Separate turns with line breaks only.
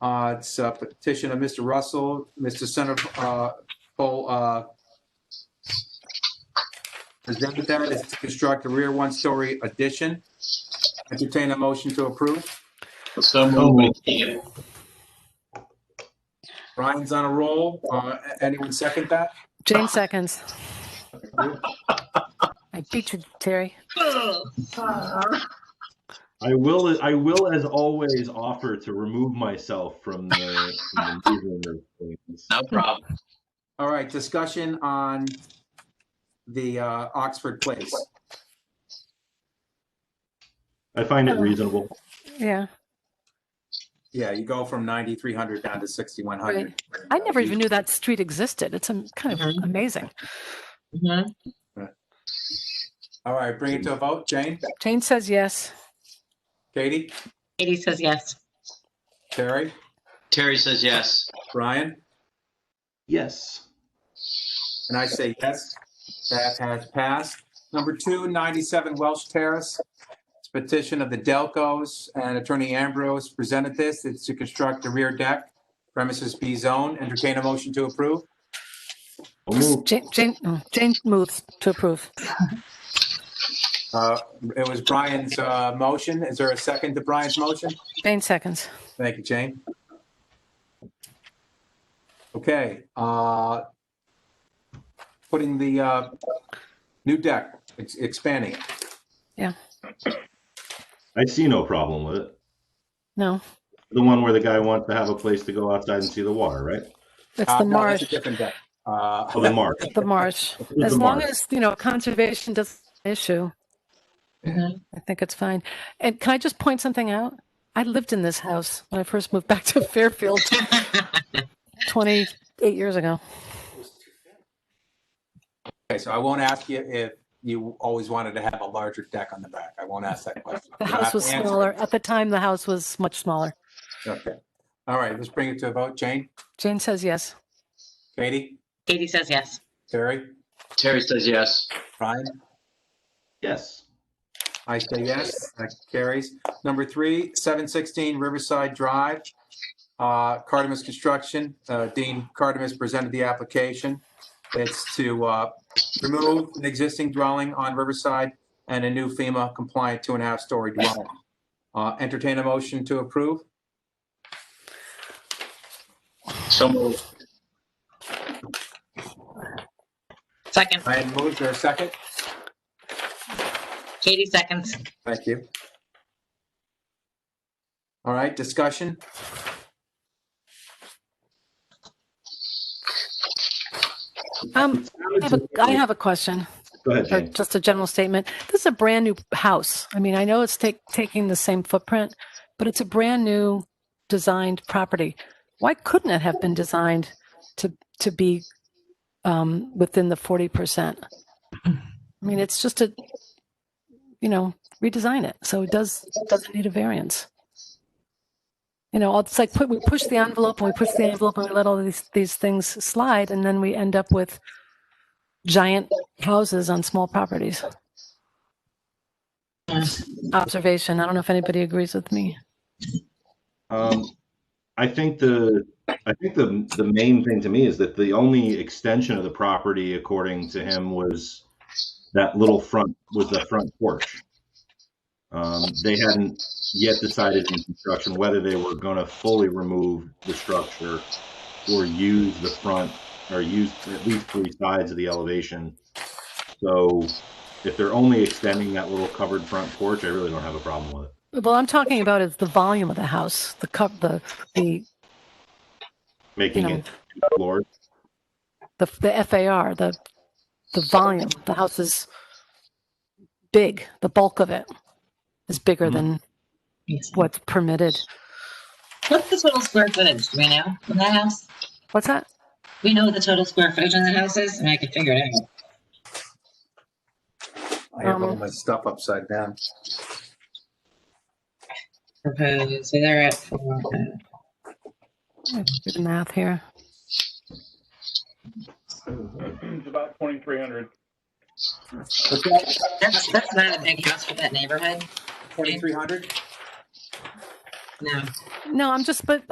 Uh, It's a petition of Mr. Russell, uh, Mr. Centerfold uh, presented that is to construct a rear one-story addition. Entertain a motion to approve.
So moved, McKee.
Ryan's on a roll. Uh, a- Anyone second that?
Jane seconds. I beat you, Terry.
I will. I will, as always, offer to remove myself from the. From the movement of things.
No problem.
All right, discussion on the uh, Oxford Place.
I find it reasonable.
Yeah.
Yeah, you go from 9,300 down to 6,100.
I never even knew that street existed. It's um, kind of amazing.
Mhm.
All right, bring it to a vote. Jane,
Jane says yes.
Katie,
Katie says yes.
Terry,
Terry says yes.
Brian,
Yes.
and I say yes. That has passed. Number two, 97 Welsh Terrace. It's a petition of the Delcos and Attorney Ambrose presented this. It's to construct a rear deck premises B zone. Entertain a motion to approve.
I'll move.
Jane, Jane, oh, Jane moves to approve.
Uh, It was Brian's uh, motion. Is there a second to Brian's motion?
Jane seconds.
Thank you, Jane. Okay, uh, putting the, uh, new deck, ex- expanding. it.
I see no problem with it.
No,
The one where the guy wants to have a place to go outside and see the water, right?
it's
Ah,
Uh,
the
no, that's a
marsh.
Different deck. Uh,
Oh, the marsh.
The marsh.
The
As long
marsh.
as, you know, conservation doesn't issue,
Mhm.
I think it's fine. And can I just point something out? I lived in this house when I first moved back to Fairfield 28 years ago.
Okay, so I won't ask you if you always wanted to have a larger deck on the back. I won't ask that question.
The
You don't have
house
to
was
answer it.
smaller. At the time, the house was much smaller.
Okay. All right, let's bring it to a vote. Jane,
Jane says yes.
Katie,
Katie says yes.
Terry,
Terry says yes.
Brian?
Yes.
I say yes, that carries. Number three, 716 Riverside Drive. Uh, Cardamus Construction, uh, Dean Cardamus presented the application. It's to uh, remove an existing dwelling on Riverside and a new FEMA compliant two and a half story dwelling. Uh, Entertain a motion to approve.
So moved.
Second,
Ryan moves, there a second?
Katie seconds.
Thank you. All right, discussion?
Um, I have a, I have a question,
Go ahead,
or
Jane.
just a general statement. This is a brand new house. I mean, I know it's take, taking the same footprint, but it's a brand new designed property. Why couldn't it have been designed to to be um, within the forty percent? I mean, it's just a you know redesign it so it does it doesn't need a variance. You know, it's like put, we push the envelope and we push the envelope and we let all these these things slide, and then we end up with giant houses on small properties. Observation. I don't know if anybody agrees with me.
Um, I think the, I think the, the main thing to me is that the only extension of the property, according to him, was that little front, was the front porch. Um, they hadn't yet decided in construction whether they were gonna fully remove the structure or use the front, or use at least three sides of the elevation. So if they're only extending that little covered front porch, I really don't have a problem with it.
Well, I'm talking about is the volume of the house, the cup, the the
Making
Yeah.
it two floors.
the, the FAR, the the volume. The house is big. The bulk of it is bigger
Mhm.
than what's permitted.
What's the total square footage? Do we know in that house?
What's that?
We know what the total square footage in the house is, and I can figure it out.
I have all
Um,
my stuff upside down.
Okay, so they're at four, uh,
I Do the math here.
It's about 2,300.
that's that's not a big house for that neighborhood.
2,300?
No.
No, I'm just, but